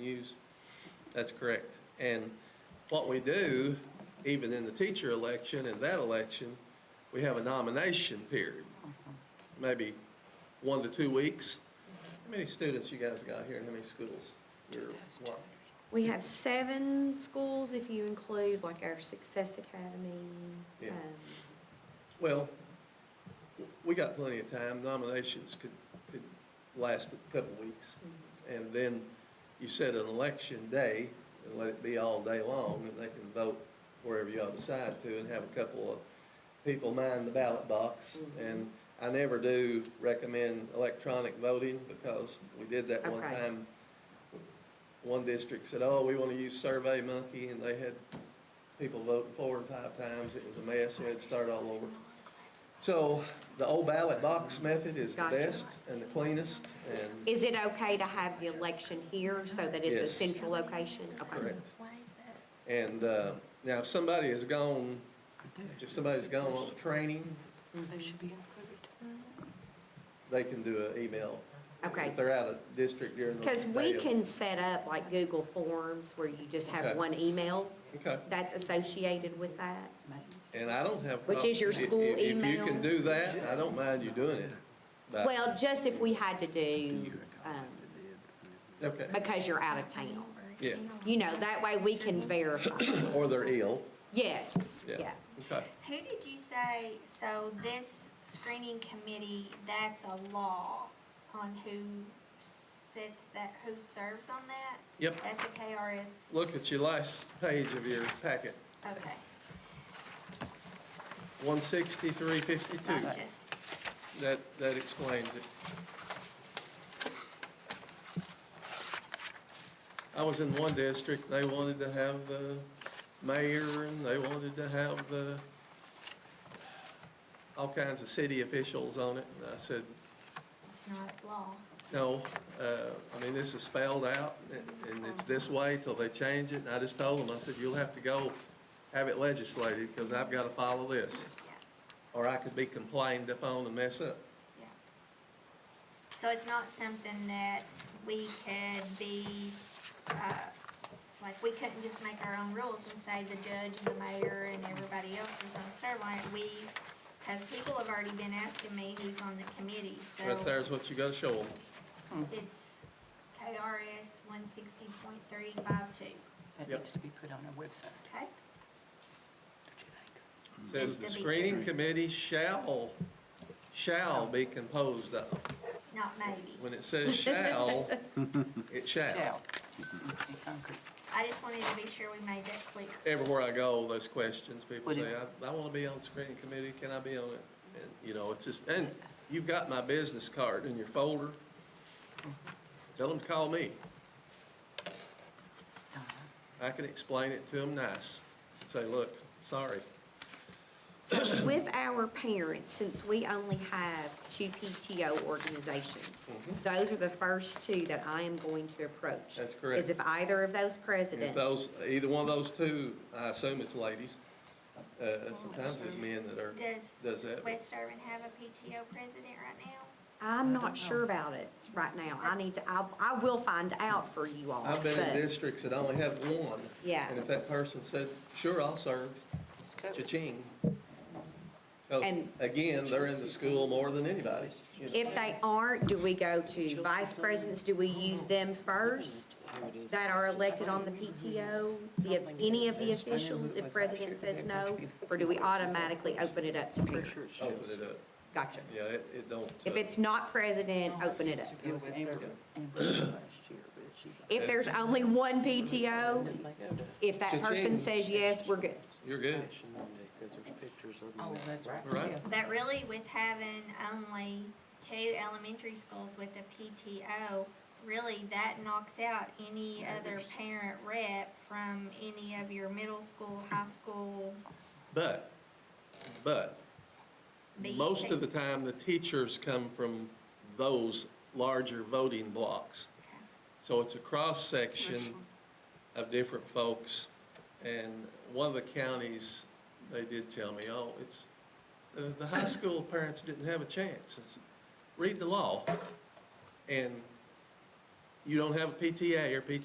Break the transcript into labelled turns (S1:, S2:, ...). S1: use. That's correct. And what we do, even in the teacher election and that election, we have a nomination period, maybe one to two weeks. How many students you guys got here and how many schools? You're- what?
S2: We have seven schools if you include like our Success Academy.
S1: Yeah.
S2: um,
S1: Well, we got plenty of time. Nominations could, could last a couple weeks. And then you set an election day and let it be all day long, and they can vote wherever y'all decide to and have a couple of people mind the ballot box.
S2: Mm-hmm.
S1: And I never do recommend electronic voting because we did that one
S2: Okay.
S1: time. One district said, oh, we want to use Survey Monkey, and they had people voting four and five times. It was a mess. We had to start all over. So the old ballot box method is the
S2: Gotcha.
S1: best and the cleanest and
S2: Is it okay to have the election here so that it's a
S1: Yes.
S2: central location? Okay.
S1: Correct.
S3: Why is that?
S1: And uh, now, if somebody has gone, if somebody's gone on a training,
S3: Those should be included.
S1: they can do an email.
S2: Okay.
S1: If they're out of district during the day.
S2: Because we
S1: of-
S2: can set up like Google Forms where you just
S1: Okay.
S2: have one email
S1: Okay,
S2: that's associated with that.
S1: and I don't have.
S2: Which is your
S1: problems. If-
S2: school
S1: if- If you
S2: email?
S1: can do that, I don't mind you doing it. But-
S2: Well, just if we had to do, um,
S1: Okay,
S2: because you're out of town.
S1: yeah,
S2: You know, that way we can verify.
S1: or they're ill,
S2: Yes,
S1: yeah,
S2: yeah.
S1: okay.
S4: Who did you say, so this screening committee, that's a law on who sits that, who serves on that?
S1: Yep,
S4: That's a KRS,
S1: look at your last page of your packet,
S4: okay,
S1: one sixty-three fifty-two.
S4: gotcha.
S1: That, that explains it. I was in one district, they wanted to have the mayor, and they wanted to have the, all kinds of city officials on it, and I said,
S4: It's not law.
S1: no, uh, I mean, this is spelled out, and- and it's this way till they change it, and I just told them, I said, you'll have to go have it legislated, because I've got to follow this,
S4: Yeah,
S1: or I could be complained upon and mess up.
S4: yeah. So it's not something that we could be, uh, like, we couldn't just make our own rules and say the judge and the mayor and everybody else is gonna serve on it. We, cause people have already been asking me who's on the committee, so.
S1: Right there's what you got to show them.
S4: It's KRS one sixty point three five two,
S3: That
S1: Yep.
S3: needs to be put on our website,
S4: okay?
S3: don't you think?
S1: Says
S4: Just
S1: the
S4: to be
S1: screening committee shall, shall be composed of.
S4: Not maybe.
S1: When it says shall, it shall.
S3: Shall. It's in- in concrete.
S4: I just wanted to be sure we made that clear.
S1: Everywhere I go, those questions, people
S3: Would
S1: say,
S3: it-
S1: I, I wanna be on the screening committee, can I be on it? And, you know, it's just, and you've got my business card in your folder. Tell them to call me. I can explain it to them nice. Say, look, sorry,
S2: So with our parents, since we only have two PTO organizations, those are the first two that I am going to approach.
S1: Mm-hmm. That's correct.
S2: Is if either of
S1: And
S2: those
S1: If
S2: presidents,
S1: those, either one of those two, I assume it's ladies, uh, sometimes it's men that are,
S4: Does
S1: does that. but-
S4: West Urban have a PTO president right now?
S2: I'm not sure about it right now. I need to, I, I will find out for you all.
S1: I've been in
S2: but-
S1: districts that only have one.
S2: Yeah.
S1: And if that person said, sure, I'll serve,
S3: It's covered.
S1: cha-ching. 'Cause,
S2: And-
S1: again, they're in the school more than anybody. you know.
S2: If they aren't, do we go to vice presidents? Do we use them first that are elected on the PTO? The, any of the officials, if president says no? Or do we automatically open it up to
S3: Pretty
S2: parents?
S3: sure it shows.
S1: Open Oh, it up.
S2: Gotcha.
S1: Yeah, it, it don't.
S2: If
S1: uh,
S2: it's not president, open it up.
S3: It was Amber, Amber last year, but she's like.
S2: If there's only one PTO, if that person
S1: Cha-ching.
S2: says yes, we're good.
S1: You're good.
S5: Because there's pictures of
S3: Oh, that's right.
S1: Right.
S3: yeah.
S4: But really with having only two elementary schools with a PTO, really that knocks out any other parent rep from any of your middle school, high school.
S1: But, but,
S4: Be-
S1: most of the time, the teachers come from those larger voting blocks. So it's a cross-section of different folks. And one of the counties, they did tell me, oh, it's, the, the high school parents didn't have a chance. I said, Read the law. And you don't have a PTA or PT